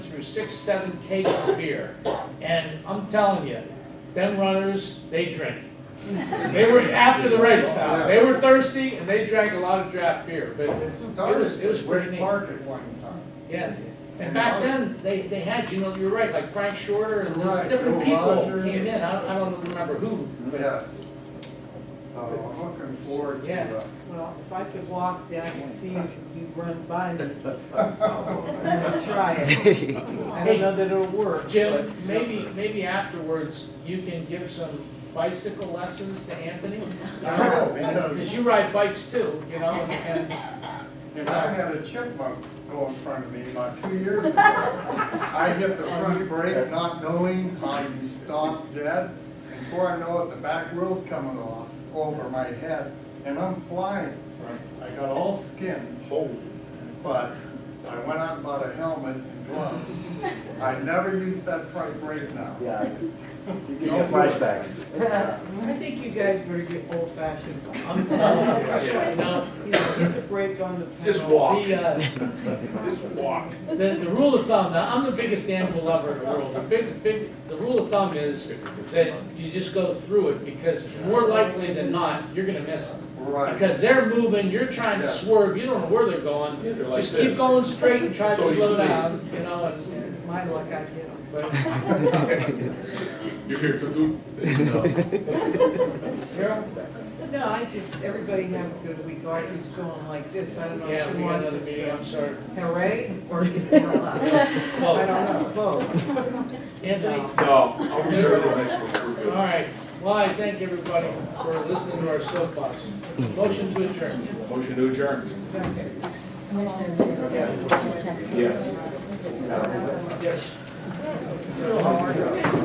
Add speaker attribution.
Speaker 1: through six, seven cakes of beer. And I'm telling you, them runners, they drink. They were after the race now. They were thirsty and they drank a lot of draft beer, but it was, it was pretty
Speaker 2: Wick
Speaker 1: neat.
Speaker 2: Park at one time.
Speaker 1: Yeah, and back then, they, they had, you know, you're right, like Frank Shorter and those
Speaker 2: Right,
Speaker 1: different
Speaker 2: Bill
Speaker 1: people
Speaker 2: Rogers.
Speaker 1: came in, I don't, I don't remember who.
Speaker 2: Yeah. So I'm looking forward to,
Speaker 1: Yeah.
Speaker 2: uh,
Speaker 3: Well, if I could walk down and see if you run by me, I'm gonna try it. I don't know that it'll work.
Speaker 1: Jim, maybe, maybe afterwards, you can give some bicycle lessons to Anthony?
Speaker 2: I will, Oh, because
Speaker 1: Because you ride bikes too, you know, and, and
Speaker 2: if I had a chipmunk go in front of me about two years ago, I hit the front brake not knowing how you stop dead. And Before I know it, the back wheel's coming off over my head and I'm flying. So I got all skinned. But I went out and bought a helmet and gloves. I never use that front brake now.
Speaker 4: Yeah, you get flashbacks.
Speaker 3: I think you guys better get old fashioned. I'm telling
Speaker 1: you know,
Speaker 3: you, get the brake on the pedal.
Speaker 5: Just walk.
Speaker 1: the, uh,
Speaker 5: Just walk.
Speaker 1: The, the rule of thumb, now, I'm the biggest animal lover in the world, the big, big, the rule of thumb is that you just go through it, because more likely than not, you're gonna miss them.
Speaker 2: Right.
Speaker 1: Because they're moving, you're trying to
Speaker 2: Yes.
Speaker 1: swerve, you don't know where they're going,
Speaker 5: Yeah, they're like
Speaker 1: just keep
Speaker 5: this.
Speaker 1: going straight and try
Speaker 5: So
Speaker 1: to
Speaker 5: you
Speaker 1: slow
Speaker 5: see.
Speaker 1: down, you know, and,
Speaker 3: It's My luck, I get them.
Speaker 1: but,
Speaker 5: You're here to do.
Speaker 1: Carol?
Speaker 3: No, I just, everybody have a good week. Audrey's going like this. I don't know
Speaker 1: yeah,
Speaker 3: if she
Speaker 1: we got
Speaker 3: wants
Speaker 1: another
Speaker 3: us
Speaker 1: meeting,
Speaker 3: to
Speaker 1: I'm sorry.
Speaker 3: hooray or just more laugh. I
Speaker 1: Oh,
Speaker 3: don't know, both.
Speaker 1: Anthony?
Speaker 5: No, I'll reserve the next one, we're
Speaker 1: All
Speaker 5: good.
Speaker 1: right, well, I thank everybody for listening to our soapbox. Motion to adjourn.
Speaker 5: Motion to adjourn.
Speaker 3: Second.
Speaker 5: Yes.
Speaker 1: Yes.